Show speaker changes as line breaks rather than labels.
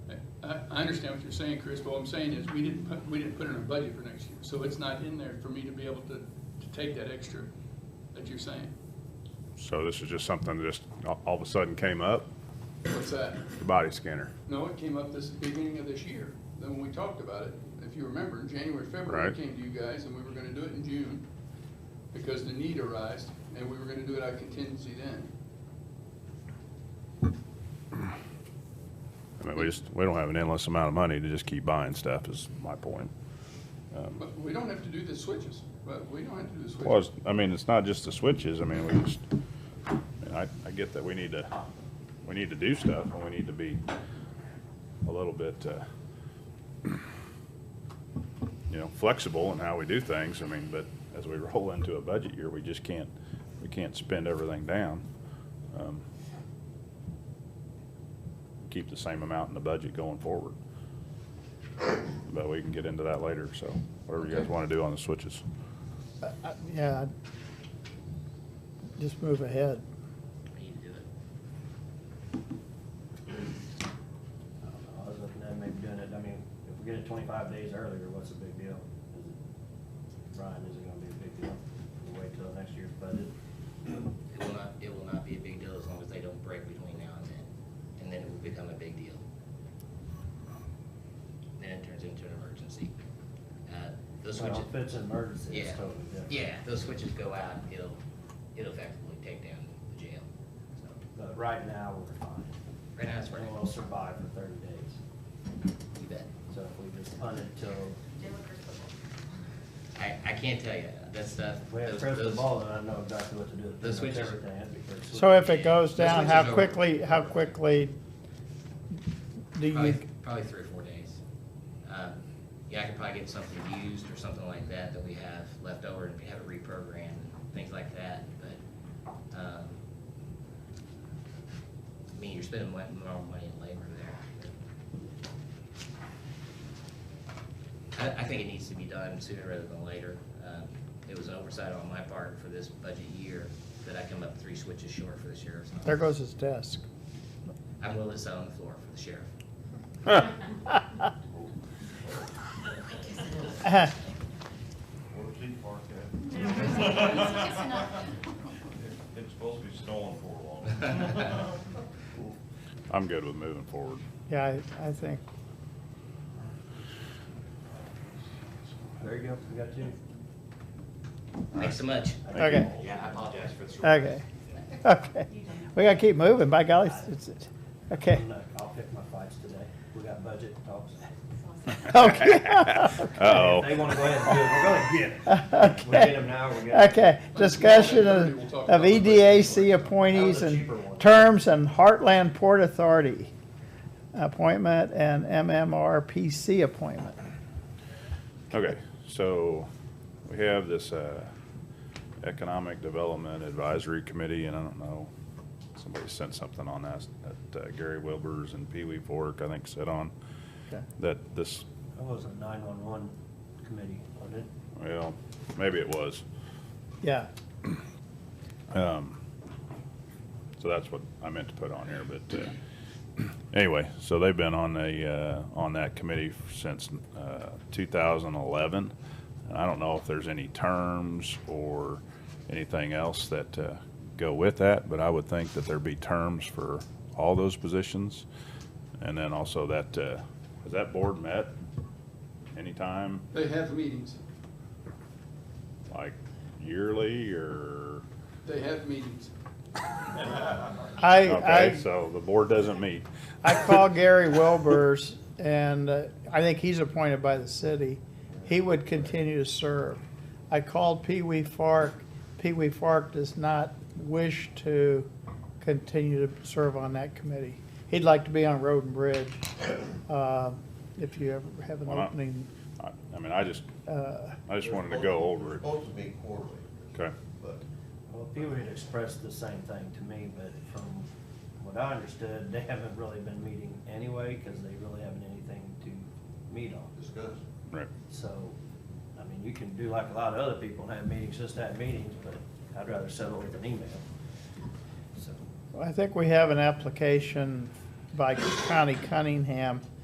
I, I understand what you're saying, Chris, but what I'm saying is, we didn't put, we didn't put it in our budget for next year, so it's not in there for me to be able to, to take that extra that you're saying.
So this is just something that just a- all of a sudden came up,
What's that?
the body scanner.
No, it came up this beginning of this year, then when we talked about it, if you remember, in January, February,
Right.
we came to you guys, and we were gonna do it in June, because the need arised, and we were gonna do it out of contingency then.
I mean, we just, we don't have an endless amount of money to just keep buying stuff is my point.
But we don't have to do the switches, but we don't have to do the switches.
Um. Well, it's- I mean, it's not just the switches. I mean, we just, and I, I get that we need to, we need to do stuff and we need to be a little bit, uh, you know, flexible in how we do things. I mean, but as we roll into a budget year, we just can't, we can't spend everything down. Um, Keep the same amount in the budget going forward. But we can get into that later, so whatever you guys want to do on the switches.
I- Yeah, I'd just move ahead.
We need to do it.
I don't know, I was looking at maybe doing it, I mean, if we get it twenty-five days earlier, what's the big deal? Is it, Brian, is it gonna be a big deal? We'll Wait till next year's budget?
It will not, it will not be a big deal as long as they don't break between now and then, and then it will become a big deal. Then it turns into an emergency. Uh, Those
Well,
switches,
If it's an emergency,
yeah,
it's totally different.
yeah, those switches go out, it'll, it'll effectively take down the jail, so,
But right now, we're fine.
right now it's
And
working,
we'll survive for thirty days.
you bet.
So if we just punt it till,
I, I can't tell you, uh, that stuff,
if we have
those,
press the
those,
ball, then I know exactly what to do.
those
Pretty much
switches-
Everything, that'd be pretty sweet.
So if it goes down,
Let's switch
how
it over.
quickly, how quickly do you,
probably, probably three or four days. Um, Yeah, I could probably get something used or something like that that we have left over and have it reprogrammed and things like that, but, um, I mean, you're spending mon- more money in labor there. I, I think it needs to be done sooner rather than later. Um, It was an oversight on my part for this budget year that I come up three switches short for the sheriff's
there
office.
goes his desk.
I'm willing to sit on the floor for the sheriff.
Where's he parked at? It's supposed to be snowing for long.
I'm good with moving forward.
Yeah, I, I think,
There you go, we got two.
Thanks so much.
okay,
Yeah, I apologize for the short.
okay, okay. We gotta keep moving, by golly, it's, it's- okay,
Look, I'll pick my fights today. We got budget talks.
okay,
Uh-oh.
If they wanna go ahead and do it, we're gonna get it. We get them now, we're gonna.
okay. Discussion of, E of EDAC appointees and terms and Heartland Port Authority appointment and MMRPC appointment.
Okay, so we have this uh, Economic Development Advisory Committee, and I don't know, somebody sent something on that, that uh, Gary Wilbers and Pee Wee Fork, I think, said on,
Okay.
that this,
That was a nine-one-one committee, wasn't it?
well, maybe it was.
Yeah,
Um, So that's what I meant to put on here, but uh, anyway, so they've been on the, uh, on that committee since uh, 2011. And I don't know if there's any terms or anything else that uh, go with that, but I would think that there'd be terms for all those positions. And then also that, uh, has that board met anytime,
They have meetings,
like yearly or?
they have meetings.
I,
Okay,
I,
so the board doesn't meet.
I called Gary Wilbers, and uh, I think he's appointed by the city. He would continue to serve. I called Pee Wee Fark. Pee Wee Fark does not wish to continue to serve on that committee. He'd like to be on Road and Bridge, uh, if you ever have an
Why not?
opening.
I I mean, I just,
uh,
I just wanted to go over it.
Supposed to be quarterly,
Okay,
but
Well, people had expressed the same thing to me, but from what I understood, they haven't really been meeting anyway, cause they really haven't anything to meet on.
discuss.
right.
So, I mean, you can do like a lot of other people and have meetings, just have meetings, but I'd rather settle with an email. So.
I think we have an application by Connie Cunningham